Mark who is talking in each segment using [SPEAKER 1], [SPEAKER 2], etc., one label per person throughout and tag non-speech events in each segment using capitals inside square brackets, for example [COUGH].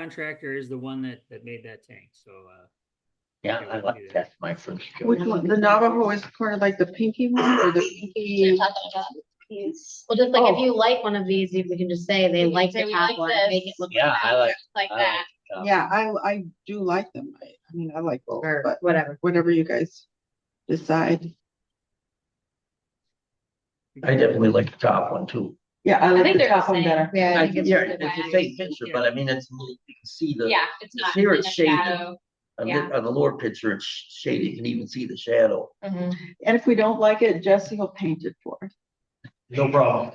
[SPEAKER 1] contractor is the one that, that made that tank, so, uh,
[SPEAKER 2] Yeah,
[SPEAKER 1] Yeah,
[SPEAKER 2] I
[SPEAKER 1] we do
[SPEAKER 2] like
[SPEAKER 1] that.
[SPEAKER 2] that's my first choice.
[SPEAKER 3] Which one? The Navajo is kind of like the pinky one or the
[SPEAKER 4] They're
[SPEAKER 3] pinky?
[SPEAKER 4] talking about these. Well, just like if
[SPEAKER 3] Oh.
[SPEAKER 4] you like one of these, you we can just say they
[SPEAKER 5] You can
[SPEAKER 4] like
[SPEAKER 5] say
[SPEAKER 4] the
[SPEAKER 5] we
[SPEAKER 4] top
[SPEAKER 5] like
[SPEAKER 4] one,
[SPEAKER 5] this.
[SPEAKER 4] make it look
[SPEAKER 2] Yeah, I like,
[SPEAKER 5] like
[SPEAKER 2] I
[SPEAKER 5] that.
[SPEAKER 2] like.
[SPEAKER 3] Yeah, I, I do like them. I, I mean, I like both,
[SPEAKER 4] or
[SPEAKER 3] but
[SPEAKER 4] whatever.
[SPEAKER 3] whatever you guys decide.
[SPEAKER 2] I definitely like the top one too.
[SPEAKER 3] Yeah, I
[SPEAKER 5] I
[SPEAKER 3] like
[SPEAKER 5] think
[SPEAKER 3] the
[SPEAKER 5] they're the
[SPEAKER 3] top one
[SPEAKER 5] same.
[SPEAKER 3] better.
[SPEAKER 4] Yeah, I
[SPEAKER 2] Yeah,
[SPEAKER 4] think it's really
[SPEAKER 2] it's the
[SPEAKER 5] wide.
[SPEAKER 2] same picture, but I mean, it's, a little- you can see the,
[SPEAKER 5] Yeah, it's
[SPEAKER 2] The
[SPEAKER 5] not in
[SPEAKER 2] here
[SPEAKER 5] the
[SPEAKER 2] it's shaded.
[SPEAKER 5] shadow.
[SPEAKER 2] on
[SPEAKER 5] yeah.
[SPEAKER 2] the, on the lower picture, it's shaded, you can even see the shadow.
[SPEAKER 3] And if we don't like it, Jesse will paint it for us.
[SPEAKER 6] No problem.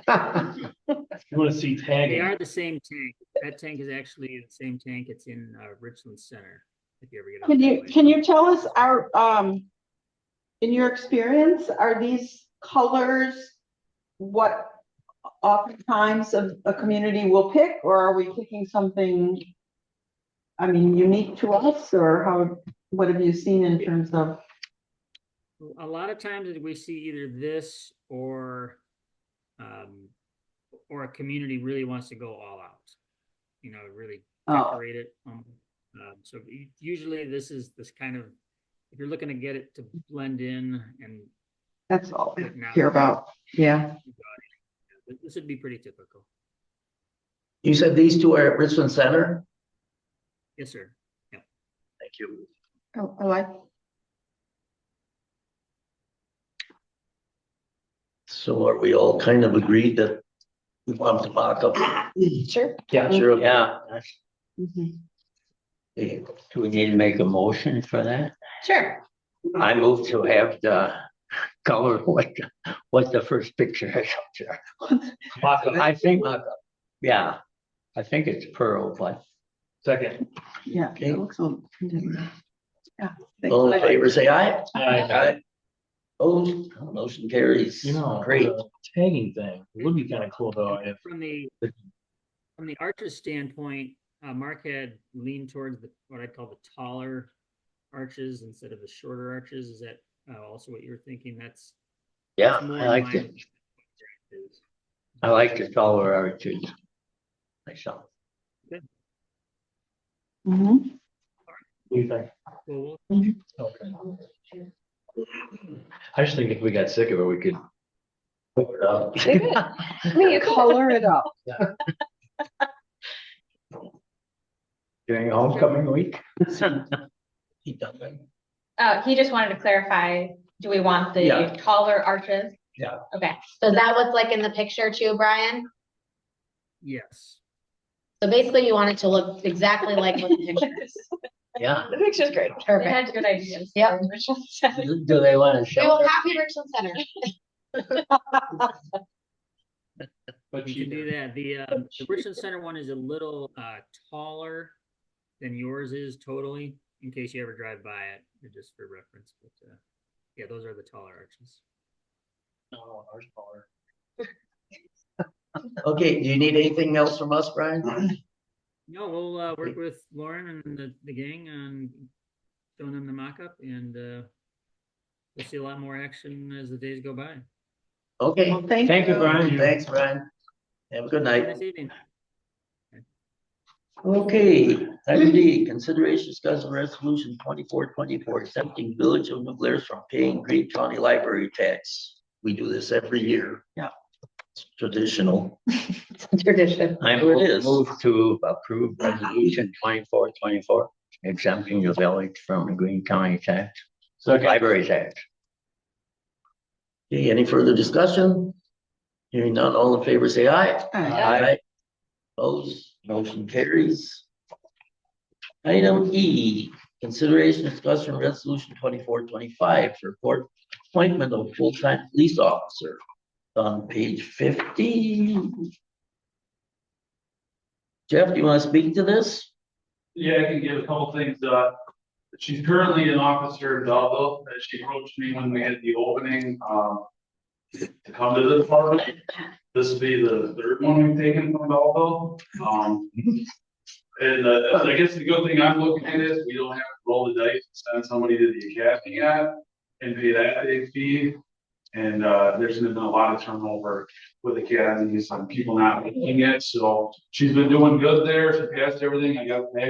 [SPEAKER 6] If you wanna see
[SPEAKER 1] They
[SPEAKER 6] tagging,
[SPEAKER 1] are the same tank. That tank is actually the same tank. It's in, uh, Richland Center. If you ever get. out
[SPEAKER 3] Can
[SPEAKER 1] that
[SPEAKER 3] you,
[SPEAKER 1] way.
[SPEAKER 3] can you tell us our, um, in your experience, are these colors what oftentimes a, a community will pick, or are we picking something, I mean, unique to us, or how, what have you seen in terms of?
[SPEAKER 1] A lot of times we see either this or, um, or a community really wants to go all out. You know, really
[SPEAKER 3] Oh,
[SPEAKER 1] decorate it. Um, um, so u- usually this is this kind of, if you're looking to get it to blend in and
[SPEAKER 3] that's all I
[SPEAKER 1] look now,
[SPEAKER 3] care about, yeah.
[SPEAKER 1] th- this would be pretty typical.
[SPEAKER 2] You said these two are at Richland Center?
[SPEAKER 1] Yes, sir.
[SPEAKER 2] Thank you.
[SPEAKER 3] Oh, I like,
[SPEAKER 2] So are we all kind of agreed that we want to mock up?
[SPEAKER 3] sure.
[SPEAKER 6] yeah,
[SPEAKER 2] Sure, yeah.
[SPEAKER 3] Mhm.
[SPEAKER 2] Okay,
[SPEAKER 7] Do we need to make a motion for that?
[SPEAKER 5] Sure.
[SPEAKER 7] I move to have the
[SPEAKER 2] [LAUGHS]
[SPEAKER 7] color, what, the- what the first picture is up there.
[SPEAKER 6] mock up,
[SPEAKER 7] I think, yeah, I think it's pearl, but
[SPEAKER 6] second.
[SPEAKER 3] Yeah,
[SPEAKER 2] Okay.
[SPEAKER 3] it looks a little. Yeah. thanks.
[SPEAKER 2] all in favor, say aye.
[SPEAKER 6] I,
[SPEAKER 2] Opposed, motion carries.
[SPEAKER 6] you know,
[SPEAKER 2] Great.
[SPEAKER 7] uh,
[SPEAKER 6] the tagging thing would be kinda cool though, if,
[SPEAKER 1] From the,
[SPEAKER 6] the-
[SPEAKER 1] from the archer's standpoint, uh, Mark had leaned towards the, what I call the taller arches instead of the shorter arches. Is that uh, also what you were thinking? That's.
[SPEAKER 7] yeah,
[SPEAKER 1] that's more
[SPEAKER 7] I
[SPEAKER 1] in
[SPEAKER 7] like
[SPEAKER 1] line
[SPEAKER 7] it.
[SPEAKER 1] with what it is.
[SPEAKER 7] I like the color origin. Myself.
[SPEAKER 3] Mhm.
[SPEAKER 6] what do you think?
[SPEAKER 1] Well, we'll-
[SPEAKER 6] Okay. I just think if we got sick of it, we could.
[SPEAKER 2] Put it up.
[SPEAKER 3] Color it up.
[SPEAKER 7] During homecoming week.
[SPEAKER 2] He done it.
[SPEAKER 5] Uh, he just wanted to clarify, do we want
[SPEAKER 2] Yeah.
[SPEAKER 5] the taller arches?
[SPEAKER 2] Yeah.
[SPEAKER 5] Okay,
[SPEAKER 4] So is that what's like in the picture too, Brian?
[SPEAKER 1] Yes.
[SPEAKER 4] So basically you want it to look exactly like what the
[SPEAKER 5] [LAUGHS]
[SPEAKER 4] picture is.
[SPEAKER 7] Yeah,
[SPEAKER 8] The picture's great.
[SPEAKER 5] they
[SPEAKER 4] Perfect.
[SPEAKER 5] had good ideas. [LAUGHS]
[SPEAKER 4] Yep.
[SPEAKER 7] do do they want to
[SPEAKER 4] We will
[SPEAKER 7] show? it?
[SPEAKER 4] copy Richland Center.
[SPEAKER 6] But
[SPEAKER 1] We can do that. The, uh, the Richland Center one is a little, uh, taller than yours is totally, in case you ever drive by it, or just for reference, but, uh, yeah, those are the taller arches.
[SPEAKER 2] [LAUGHS] Okay, do you need anything else from us, Brian?
[SPEAKER 1] No, we'll, uh, work with Lauren and the, the gang on showing them the mock-up and, uh, we'll see a lot more action as the days go by.
[SPEAKER 2] Okay,
[SPEAKER 3] Well, thank you.
[SPEAKER 7] Thank you, Brian.
[SPEAKER 2] thanks, Brian. Have a good
[SPEAKER 1] Have a
[SPEAKER 2] night.
[SPEAKER 1] nice evening.
[SPEAKER 2] Okay, item D, consideration discussing resolution twenty-four twenty-four accepting village of New Glarus from paying Green County Library tax. We do this every year.
[SPEAKER 3] Yeah.
[SPEAKER 2] It's Traditional.
[SPEAKER 4] Tradition.
[SPEAKER 7] I
[SPEAKER 2] There it is.
[SPEAKER 7] move to approve resolution twenty-four twenty-four exempting the village from the Green County tax, library tax.
[SPEAKER 2] Okay, any further discussion? Hearing none, all in favor, say aye.
[SPEAKER 3] Hi.
[SPEAKER 7] Aye.
[SPEAKER 2] Opposed, motion carries. Item E, consideration discussion resolution twenty-four twenty-five for court appointment of full-time police officer. On page fifty. Jeff, do you want to speak to this?
[SPEAKER 9] Yeah, I can give a couple things, uh, she's currently an officer in Belleville, and she approached me when we had the opening, um. To come to the department, this will be the third one we've taken from Belleville, um. And, uh, I guess the good thing I'm looking at is we don't have to roll the dice, and send somebody to the academy yet, and pay that big fee. And, uh, there's been a lot of turnover with academies and people not making it, so she's been doing good there, she passed everything, I got, I